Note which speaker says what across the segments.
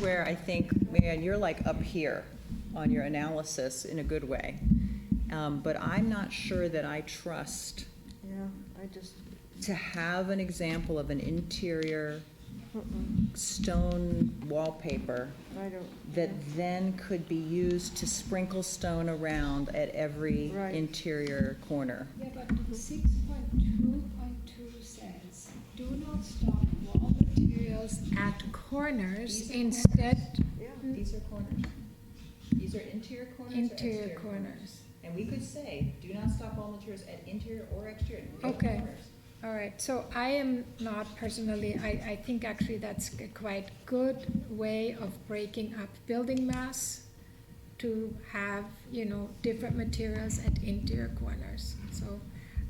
Speaker 1: where I think, man, you're like up here on your analysis in a good way. Um, But I'm not sure that I trust
Speaker 2: Yeah, I just,
Speaker 1: to have an example of an interior
Speaker 2: mm-mm,
Speaker 1: stone wallpaper
Speaker 2: uh-uh, I don't.
Speaker 1: that then could be used to sprinkle stone around at every
Speaker 2: Right.
Speaker 1: interior corner.
Speaker 3: Yeah, but six point two point two says, do not stock wall materials at corners,
Speaker 4: These are
Speaker 3: instead
Speaker 2: Yeah,
Speaker 1: These are corners. These are interior corners
Speaker 3: Mm-hmm. interior corners.
Speaker 1: And we could say, do not stop all materials at interior or exterior.
Speaker 3: Okay. All right, so I am not personally, I, I think actually that's a quite good way of breaking up building mass to have, you know, different materials at interior corners. So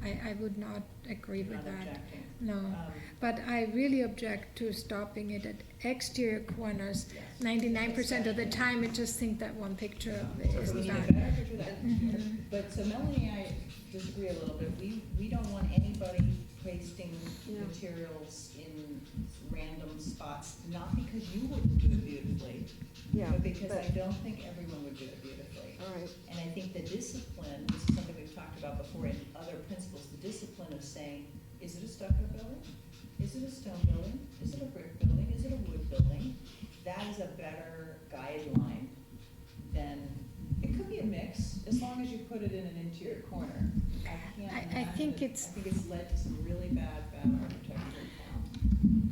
Speaker 3: I, I would not agree with that. Mm. No,
Speaker 1: Um,
Speaker 3: but I really object to stopping it at exterior corners. Ninety-nine percent of the time, I just think that one picture of it is
Speaker 1: So we need a
Speaker 3: bad.
Speaker 1: better picture of that.
Speaker 3: Mhm.
Speaker 1: But, so Melanie and I disagree a little bit, we, we don't want anybody pasting
Speaker 2: No.
Speaker 1: materials in random spots, not because you wouldn't do it beautifully,
Speaker 2: yeah,
Speaker 1: but because I
Speaker 2: but,
Speaker 1: don't think everyone would do it beautifully.
Speaker 2: all right,
Speaker 1: And I think the discipline, this is something we've talked about before in other principles, the discipline of saying, is it a stucco building? Is it a stone building? Is it a brick building? Is it a wood building? That is a better guideline than, it could be a mix, as long as you put it in an interior corner. I can't
Speaker 3: I- I think
Speaker 1: imagine-
Speaker 3: it's-
Speaker 1: I think it's led to some really bad, bad architecture.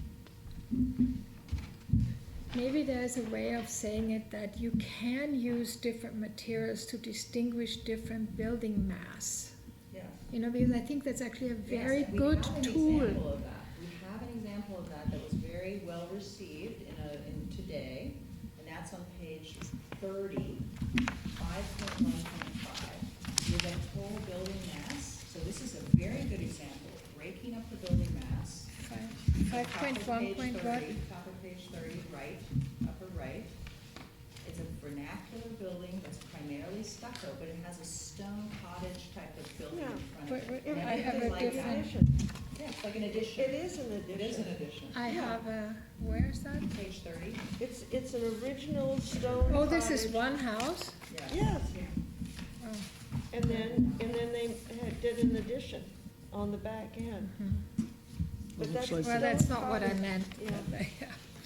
Speaker 3: Maybe there's a way of saying it that you can use different materials to distinguish different building mass.
Speaker 1: Yeah.
Speaker 3: You know, because I think that's actually a
Speaker 1: Yes,
Speaker 3: very
Speaker 1: and we
Speaker 3: good
Speaker 1: have an example
Speaker 3: tool.
Speaker 1: of that. We have an example of that that was very well received in a, in today, and that's on page thirty, five point one point five, with a whole building mass. So this is a very good example of breaking up the building mass.
Speaker 3: Five point one point
Speaker 1: Top of
Speaker 3: one,
Speaker 1: page 30, Top of page thirty, right, upper right. It's a vernacular building that's primarily stucco, but it has a stone cottage type of building
Speaker 2: Yeah,
Speaker 1: in front
Speaker 3: but-
Speaker 1: of it.
Speaker 3: but
Speaker 1: And
Speaker 3: I have
Speaker 1: everything
Speaker 3: a
Speaker 1: like that-
Speaker 3: different-
Speaker 2: addition,
Speaker 1: Yeah, it's like an
Speaker 2: it
Speaker 1: addition.
Speaker 2: is an
Speaker 1: It is an
Speaker 2: addition,
Speaker 1: addition.
Speaker 3: I
Speaker 2: Yeah.
Speaker 3: have a, where is that?
Speaker 1: Page thirty,
Speaker 2: it's, it's an original stone.
Speaker 3: Oh, this is
Speaker 2: cottage.
Speaker 3: one house?
Speaker 1: yeah.
Speaker 2: Yeah.
Speaker 3: Oh,
Speaker 2: And then, and then they had- did an addition on the back end,
Speaker 3: mhm.
Speaker 2: but
Speaker 5: It
Speaker 2: that's.
Speaker 5: looks
Speaker 3: Well,
Speaker 5: like the-
Speaker 3: that's not what I
Speaker 2: cottage.
Speaker 3: meant.
Speaker 2: Yeah.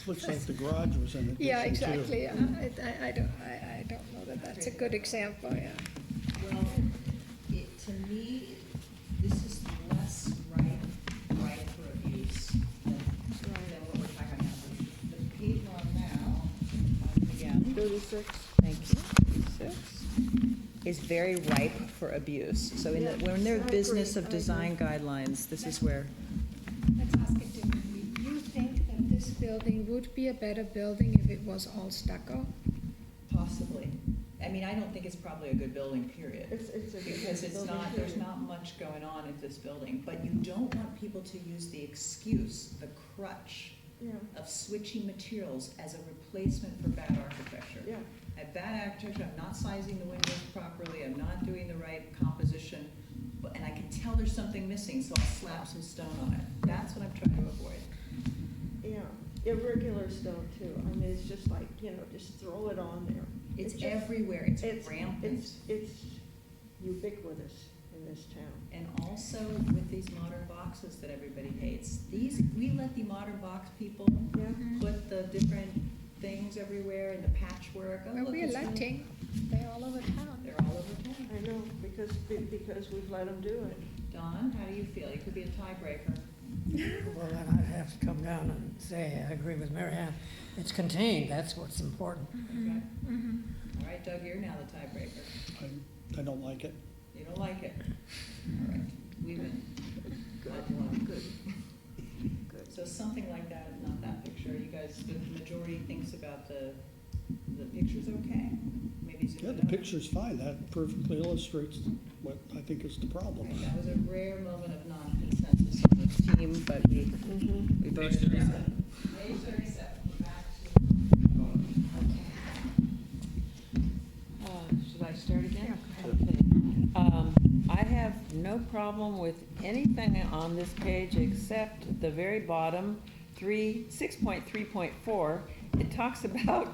Speaker 5: It Looks like the garage was in addition to.
Speaker 3: Yeah, exactly, yeah. I, I- I don't, I, I don't know that that's a good example, yeah.
Speaker 1: Well, it, to me, this is less right, right for abuse than, than what we're talking about. The page we're on now, again.
Speaker 2: Thirty-six,
Speaker 1: Thank you. Is very ripe for abuse. So in the,
Speaker 2: Yeah,
Speaker 1: when they're
Speaker 2: I
Speaker 1: business
Speaker 2: agree, I
Speaker 1: of
Speaker 2: agree.
Speaker 1: design guidelines, this is where.
Speaker 3: Let's ask it differently. You think that this building would be a better building if it was all stucco?
Speaker 1: Possibly. I mean, I don't think it's probably a good building, period.
Speaker 2: it's, it's a.
Speaker 1: Because it's
Speaker 2: building
Speaker 1: not, there's
Speaker 2: period.
Speaker 1: not much going on at this building, but you don't want people to use the excuse, the crutch
Speaker 2: Yeah,
Speaker 1: of switching materials as a replacement for bad architecture.
Speaker 2: yeah,
Speaker 1: I have bad architecture, I'm not sizing the windows properly, I'm not doing the right composition, but- and I can tell there's something missing, so I'll slap some stone on it. That's what I'm trying to avoid.
Speaker 2: yeah, irregular stone too, I mean, it's just like, you know, just throw it on there.
Speaker 1: It's
Speaker 2: just-
Speaker 1: everywhere,
Speaker 2: It's,
Speaker 1: it's rampant.
Speaker 2: it's, it's ubiquitous in this town.
Speaker 1: And also with these modern boxes that everybody hates, these, we let the modern box people
Speaker 2: Yeah,
Speaker 1: put the different things everywhere and the patchwork. Oh,
Speaker 3: Well,
Speaker 1: look,
Speaker 3: we're
Speaker 1: it's new.
Speaker 3: letting, they're all over town.
Speaker 1: They're all over town.
Speaker 2: I know, because, because we've let them do it.
Speaker 1: Don, how do you feel? You could be a tiebreaker.
Speaker 6: Well, then I'd have to come down and say, I agree with Mary Ann. It's contained, that's what's important.
Speaker 1: Okay.
Speaker 3: Mhm.
Speaker 1: All right, Doug, you're now the tiebreaker.
Speaker 5: I- I don't like it.
Speaker 1: You don't like it. All right, we win. Glad you won. Good. So something like that, if not that picture. You guys, the majority thinks about the, the picture's okay? Maybe zoom it
Speaker 5: Yeah,
Speaker 1: out.
Speaker 5: the picture's fine, that perfectly illustrates what I think is the problem.
Speaker 1: Right, That was a rare moment of non-consensus on the team, but we, we both. Page thirty-seven. Page thirty-seven, we're back to.
Speaker 7: Uh, Should I start again? Okay. Um, I have no problem with anything on this page except the very bottom, three, 6.3.4,
Speaker 1: it talks about